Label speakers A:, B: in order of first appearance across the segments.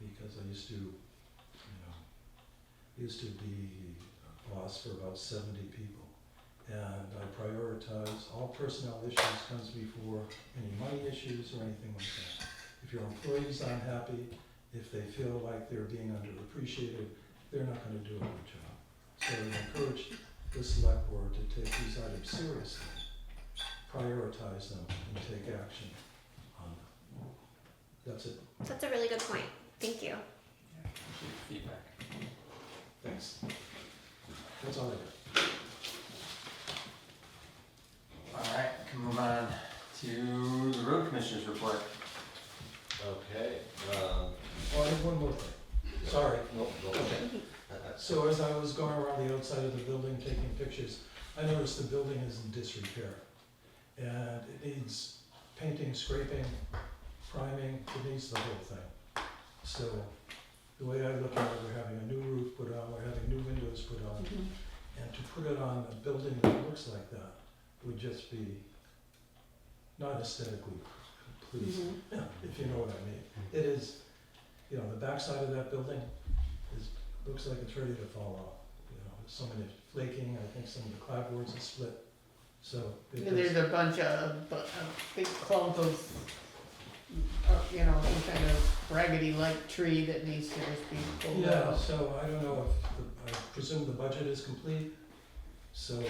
A: I used to, you know, used to be a boss for about seventy people. And I prioritize, all personnel issues comes before any money issues or anything like that. If your employee's unhappy, if they feel like they're being underappreciated, they're not gonna do a good job. So I encourage the select board to take these items seriously, prioritize them, and take action on them. That's it,
B: That's a really good point. Thank you.
C: Feedback.
A: thanks. That's all I got.
C: All right, can move on to the road commissioner's report.
D: Okay, um,
A: Oh, I have one more thing, sorry.
D: no, no,
C: Okay.
A: So as I was going around the outside of the building taking pictures, I noticed the building is in disrepair. And it needs painting, scraping, priming, it needs the whole thing. So the way I look at it, we're having a new roof put on, we're having new windows put on. And to put it on a building that looks like that would just be not aesthetically pleasing, if you know what I mean. It is, you know, the backside of that building is, looks like it's ready to fall off. You know, some of it flaking, I think some of the clapboards are split, so. it
E: And there's
A: does-
E: a bunch of, bu- a big clump of, uh, you know, some kind of raggedy like tree that needs to just be pulled
A: Yeah,
E: out.
A: so I don't know if, the- I presume the budget is complete, so.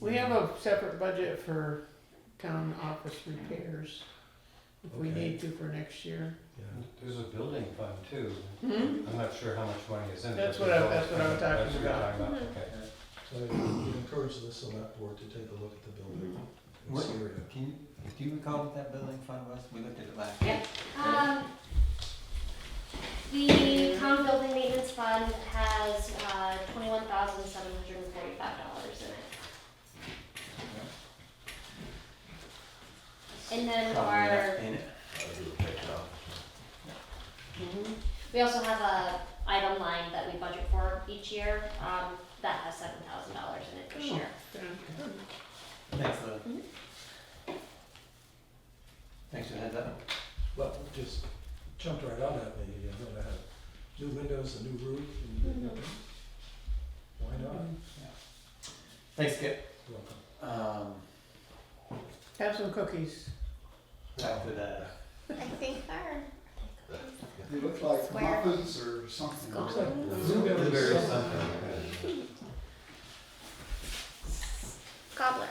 E: We have a separate budget for town office repairs, if we
A: Okay.
E: need to for next year.
A: Yeah.
F: There's a building fund too.
E: Hmm?
F: I'm not sure how much money is in it.
E: That's
F: but
E: what I-
F: there's
E: that's what I'm
F: always- that's
E: talking
F: what you're
E: about.
B: Mhm.
F: Okay.
A: So I would encourage the select board to take a look at the building. and
C: What-
A: see where it-
C: Can you, do you recall what that building fund was? We looked at it last.
G: Yeah. Um, the town building maintenance fund has, uh, twenty-one thousand seven hundred and forty-five dollars in it. And then
C: Probably enough
G: our,
C: in it.
D: I'll do a quick count.
G: we also have a item line that we budget for each year, um, that has seven thousand dollars in it
C: Hmm.
G: this
E: Oh.
G: year.
E: Yeah.
C: Thanks, Lou.
G: Mm-hmm.
C: Thanks for the heads up.
A: Well, it just jumped right out at me, you know, to have new windows, a new roof, and
E: Mm-hmm.
A: why not?
C: Thanks, Skip.
A: Welcome.
C: Um,
E: Have some cookies.
C: back to the,
B: I think our
H: They look like
B: Square.
H: muffins or something.
B: Square.
A: Looks like
F: Blueberry
A: blueberries.
F: something, okay.
B: gobbler.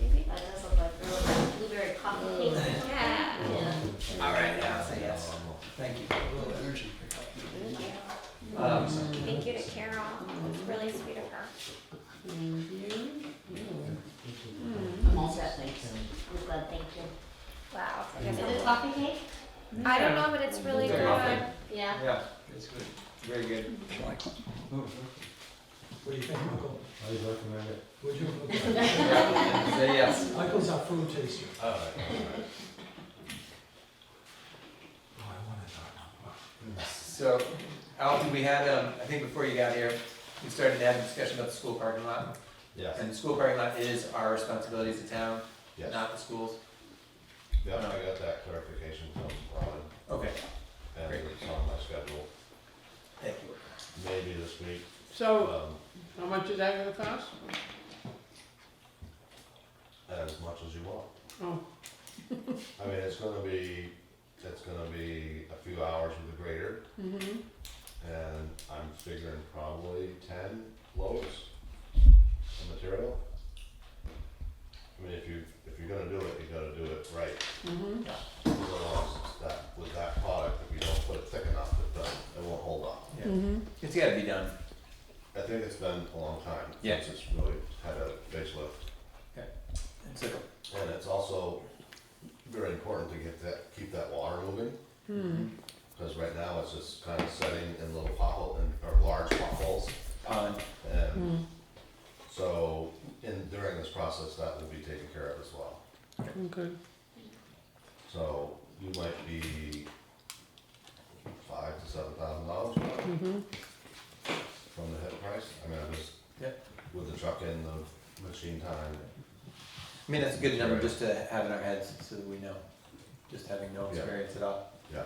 B: Maybe?
G: That does look like really blueberry coffee cake.
B: Yeah.
G: Yeah.
C: all right, yeah, I'll say yes.
D: Um,
C: Thank you.
H: Little energy pickup.
B: Thank you.
C: Um,
B: Thank you to Carol. It's really sweet of her.
E: Thank you. Mm-hmm.
G: I'm all set, thanks. I'm glad, thank you.
B: Wow.
G: Is it coffee cake?
B: I don't know, but it's really
C: Very
B: good.
C: often.
G: Yeah.
C: Yeah, it's good. Very good. Ooh,
A: What do you think, Michael?
F: I would recommend it.
A: Would you? Okay.
C: Say yes.
A: Michael's our food taster.
D: All right, all right.
A: Oh, I wanted that.
C: So, Alton, we had, um, I think before you got here, we started to have a discussion about the school parking lot.
D: Yes,
C: And the school parking lot is our responsibility as a town,
D: yes, yeah,
C: not the schools.
D: I got that clarification from Ron,
C: Okay,
D: and it's on my schedule,
C: thank you.
D: maybe this week,
E: So,
D: um,
E: how much is that gonna cost?
D: as much as you want.
E: Oh,
D: I mean, it's gonna be, it's gonna be a few hours with the grader,
E: mm-hmm,
D: and I'm figuring probably ten loads of material. I mean, if you, if you're gonna do it, you gotta do it right.
E: mm-hmm.
D: Otherwise, it's that, with that product, if you don't put it thick enough, it doesn't, it won't hold up.
E: Hmm. Mm-hmm.
C: It's gotta be done.
D: I think it's been a long time
C: Yeah.
D: since it's really had a facelift.
C: It's like,
D: And it's also very important to get that, keep that water moving.
E: Mm-hmm. Hmm.
D: Cause right now it's just kind of setting in little pothole and, or large potholes.
C: um,
E: Hmm.
D: And
E: Mm-hmm.
D: so, in, during this process, that will be taken care of as well.
E: Okay.
D: So you might be five to seven thousand dollars
E: Mm-hmm.
D: from the hip price. I mean, I'm just,
C: Yeah.
D: with the truck in, the machine time,
C: I mean, that's a good number just to have in our heads so that we know, just having no experience at all.
D: yeah.